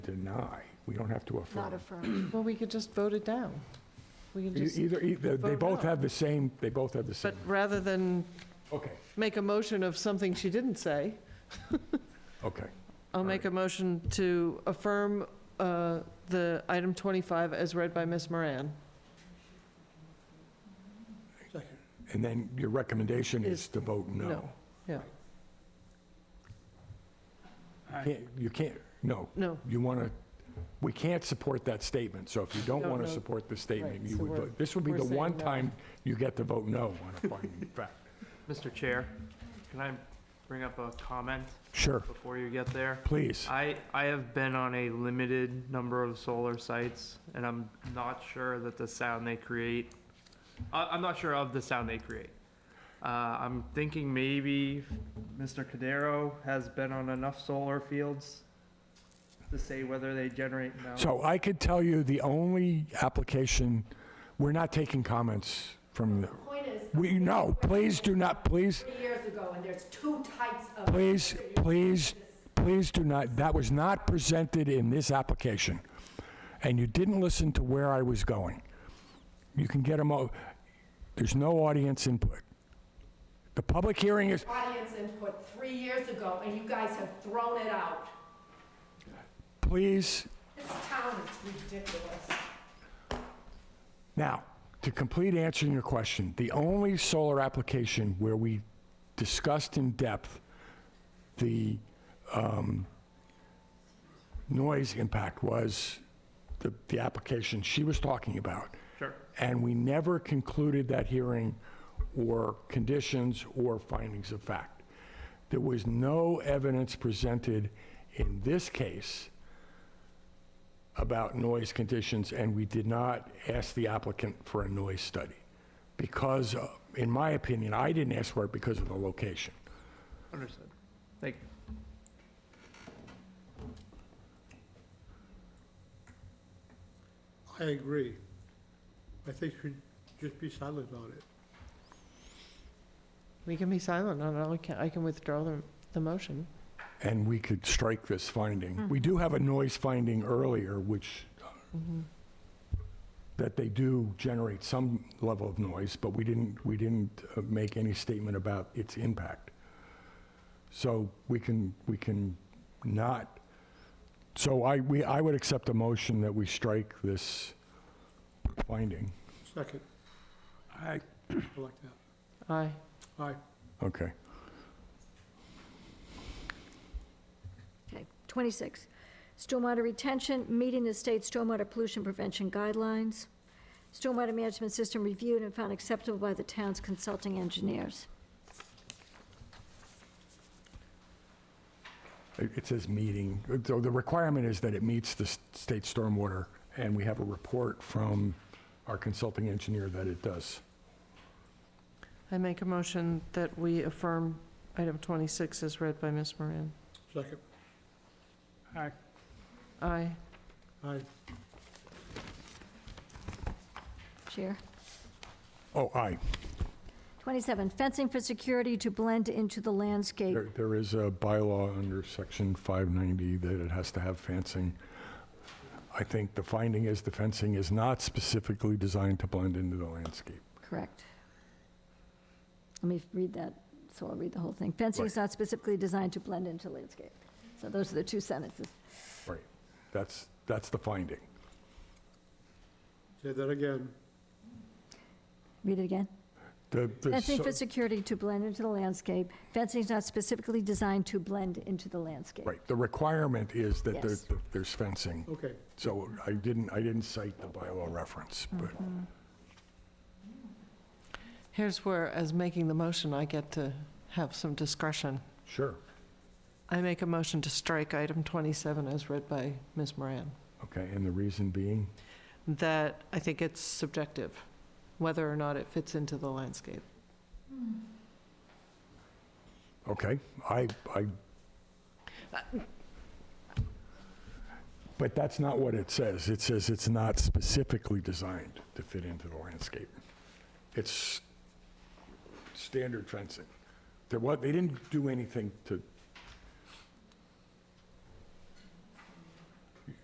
deny. We don't have to not affirm. affirm. Well, we could just vote it down. We can E- just, Either, either, they vote both no. have the same, they both have the but same. rather than Okay, make a motion of something she didn't say, okay. I'll make a motion to affirm uh, the item 25 as read by Ms. Moran. And then your recommendation is Is- to vote no. no, yeah. Can't- You can't, no, No, you want to, we can't support that statement, so if you don't No, want to no. support the statement, Right, you so would we're- vote, this would be we're the saying one no. time you get to vote no on a finding of fact. Mr. Chair, can I bring up a comment Sure, before you get there? please. I, I have been on a limited number of solar sites, and I'm not sure that the sound they create, I, I'm not sure of the sound they create. Uh, I'm thinking maybe Mr. Cadero has been on enough solar fields to say whether they generate now. So I could tell you the only application, we're not taking comments from the, Point is, we, no, please do not, please, three years ago, and there's two types of. please, please, please do not, that was not presented in this application. And you didn't listen to where I was going. You can get them, all- there's no audience input. The public hearing is, Audience input three years ago, and you guys have thrown it out. please, This town is ridiculous. Now, to complete answering your question, the only solar application where we discussed in depth the um, noise impact was the, the application she was talking about. Sure. And we never concluded that hearing or conditions or findings of fact. There was no evidence presented in this case about noise conditions, and we did not ask the applicant for a noise study. Because, uh, in my opinion, I didn't ask for it because of the location. Understood. Thank you. I agree. I think we just be silent about it. we can be silent on it. We can- I can withdraw the, the motion. And we could strike this finding. We do have a noise finding earlier, which, that they do generate some level of noise, but we didn't, we didn't uh, make any statement about its impact. So we can, we can not, so I, we, I would accept a motion that we strike this finding. Second, I I like that. Aye. Aye. Okay. Okay, 26, stormwater retention, meeting the state stormwater pollution prevention guidelines. Stormwater management system reviewed and found acceptable by the town's consulting engineers. It it says meeting, so the requirement is that it meets the s- state stormwater, and we have a report from our consulting engineer that it does. I make a motion that we affirm item 26 as read by Ms. Moran. Second, Aye. aye. Chair. Oh, aye, 27, fencing for security to blend into the landscape. there there is a bylaw under section 590 that it has to have fencing. I think the finding is the fencing is not specifically designed to blend into the landscape. Correct. Let me read that, so I'll read the whole thing. Fencing is Right. not specifically designed to blend into landscape. So those are the two sentences. Right, that's, that's the finding. Say that again. Read it again. The- the Fencing so- for security to blend into the landscape. Fencing is not specifically designed to blend into the landscape. Right, the requirement is that there- Yes. there's fencing. Okay, So I didn't, I didn't cite the bylaw reference, but Here's where, as making the motion, I get to have some discretion. sure, I make a motion to strike item 27 as read by Ms. Moran, okay, and the reason being? that I think it's subjective, whether or not it fits into the landscape. Okay, I, I. But that's not what it says. It says it's not specifically designed to fit into the landscape. It's standard fencing. There was, they didn't do anything to